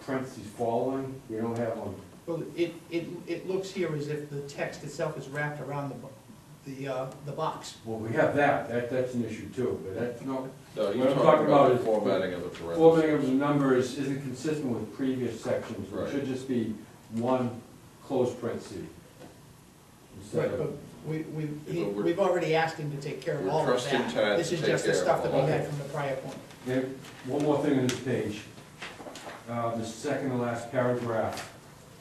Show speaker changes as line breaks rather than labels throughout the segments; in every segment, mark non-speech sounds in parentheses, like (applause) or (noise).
parentheses following, we don't have them.
Well, it, it, it looks here as if the text itself is wrapped around the, bo- the, uh, the box.
Well, we have that, that, that's an issue too, but that's not,
No,
What
you're
I'm
talking about the
is-
formatting of the parentheses.
formatting of the numbers isn't consistent with previous sections. It
Right.
should just be one closed parentheses. Instead
But
of,
we, we, he-
Yeah, but we're-
we've already asked him to take care of
We're
all of
trusting
that.
Tad
This
to
is
take
just the
care of
stuff that we
all
had
of it.
from the prior point.
Okay, one more thing on this page. Uh, the second to last paragraph,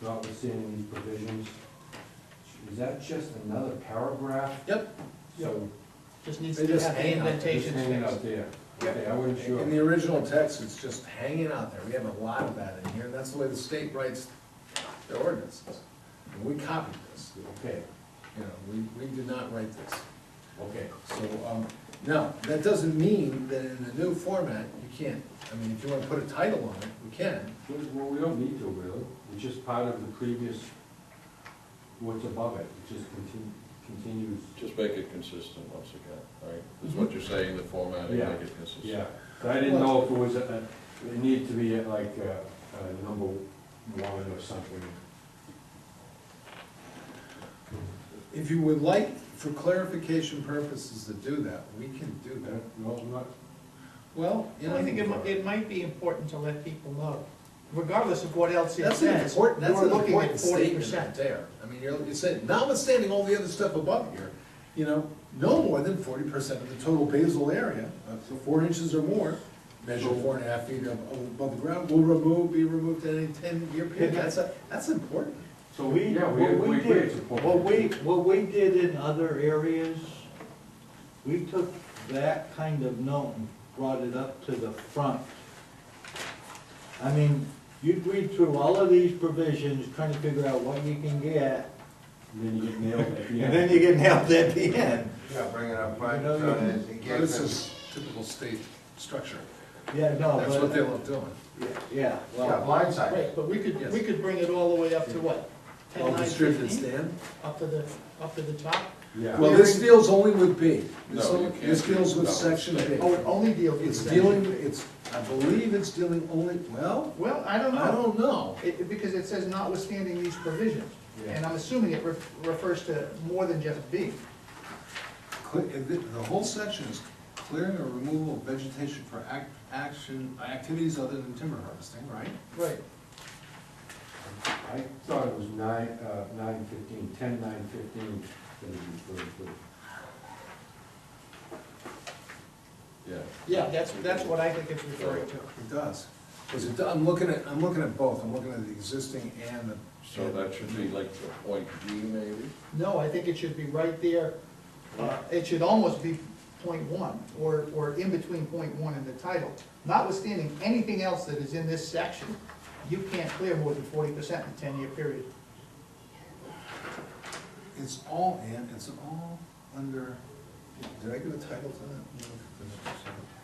notwithstanding these provisions. Is that just another paragraph?
Yep.
So,
Just needs
They
to
just
have the
hang out. They just
just
indentation
hanging
fixed.
out there.
Yep.
Okay, I wasn't sure.
In the original text, it's just hanging out there, we have a lot of that in here, and that's the way the state writes their ordinances. And we copied this,
Okay,
you know, we, we did not write this.
okay.
So, um, now, that doesn't mean that in the new format, you can't, I mean, if you wanna put a title on it, we can.
Well, we don't need to really, it's just part of the previous, what's above it, it just continu- continues.
Just make it consistent once again, right? Is what you're saying, the formatting,
Mm-hmm. Yeah.
make it consistent.
Yeah, but I didn't know if it was, a- a- it needed to be like uh, uh, number one or something.
If you would like, for clarification purposes, to do that, we can do
Uh,
that.
No, I'm not,
Well, you
Well, I think it,
know,
mi- it might be important to let people know, regardless of what else it
that's an
says.
important, that's
we're
an
looking at
important statement
40%.
right there. I mean, you're, you said, notwithstanding all the other stuff above here, you know, no more than forty percent of the total basal area, uh, so four inches or more, measure four and a half feet ab- above the ground, will remove, be removed in any ten-year period. That's, a- that's important.
So we,
Yeah, we-
what
we
we
agree it's
did,
important.
what we, what we did in other areas, we took that kind of note and brought it up to the front. I mean, you'd read through all of these provisions, trying to figure out what you can get,
and then you get nailed at the
and
end.
(laughs)
then you get nailed at the end.
Yeah, bringing up my,
You know, you can-
it
This
gives
is Oh, typical state structure.
Yeah, no,
That's what they
but,
love doing.
yeah,
yeah,
well,
blindside.
Right, but we could, we
Yes.
could bring it all the way up to what? 10,
Well,
9,
distributed
15?
stand.
Up to the, up to the top?
Yeah.
Well, this deals only with B. This
No, you
only- This
can't
deals
do
with
that.
section B.
Oh, it only deals with.
It's
that.
dealing, it's, I believe it's dealing only, well,
Well, I don't know.
I don't know.
It, it- because it says notwithstanding these provisions,
Yeah.
and I'm assuming it ref- refers to more than just B.
Cle- The the whole section is clearing or removal of vegetation for ac- action, activities other than timber harvesting, right?
Right.
I thought it was nine, uh, nine fifteen, ten nine fifteen that it was referred to.
Yeah.
Yeah, that's, that's what I think it's referring to.
It does. 'Cause it do- I'm looking at, I'm looking at both, I'm looking at the existing and the.
So that should be like the point D maybe?
No, I think it should be right there, uh, it should almost be point one, or, or in between point one and the title. Notwithstanding anything else that is in this section, you can't clear more than forty percent in a ten-year period.
It's all in, it's all under, did I give a title to that? No.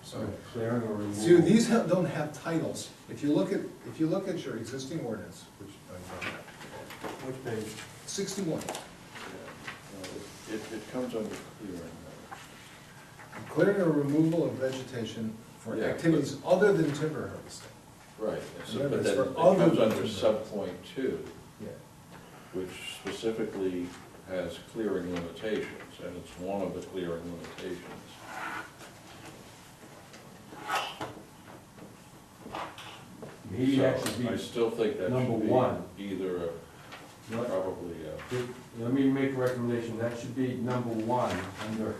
So,
Clearing or removal.
See, these ha- don't have titles. If you look at, if you look at your existing ordinance, which, I don't know,
Which page?
sixty-one,
Yeah. No, It, it comes under clearing.
clearing or removal of vegetation for
Yeah, but-
activities other than timber harvesting.
Right, so,
Remember,
but
it's
then
for
it
other
comes under
things.
sub point two,
Yeah.
which specifically has clearing limitations, and it's one of the clearing limitations.
Maybe that should
So I
be,
still think that
number
should
one.
be either, a-
let-
probably, a-
let me make a recommendation, that should be number one, under,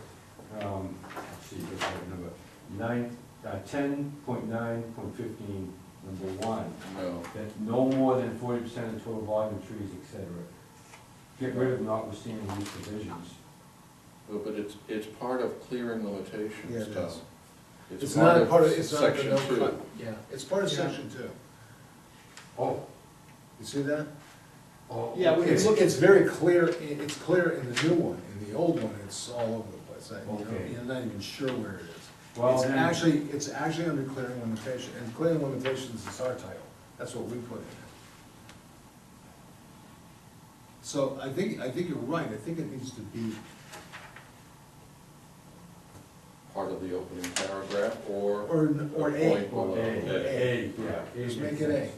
um, let's see, what's that number? Nine, uh, ten point nine point fifteen, number one,
no.
that no more than forty percent of total volume of trees, et cetera. Get rid of notwithstanding these provisions.
Well, But it's, it's part of clearing limitations,
Yeah, it
Tom.
is. It's not a part of, it's not the
section
no
two.
cut. Yeah, it's part of
Yeah.
section two.
Oh,
You see that?
oh.
Yeah, we-
okay.
It's, it's very clear, i- it's clear in the new one. In the old one, it's all over the place. I- you
Okay.
know, You're not even sure where it is.
Well,
It's
then-
actually, it's actually under clearing limitation, and clearing limitations is our title, that's what we put in. So I think, I think you're right, I think it needs to be,
Part of the opening paragraph, or
or, or
a point
A,
Well,
below
A, A,
A.
yeah. A makes
just make it A.
sense.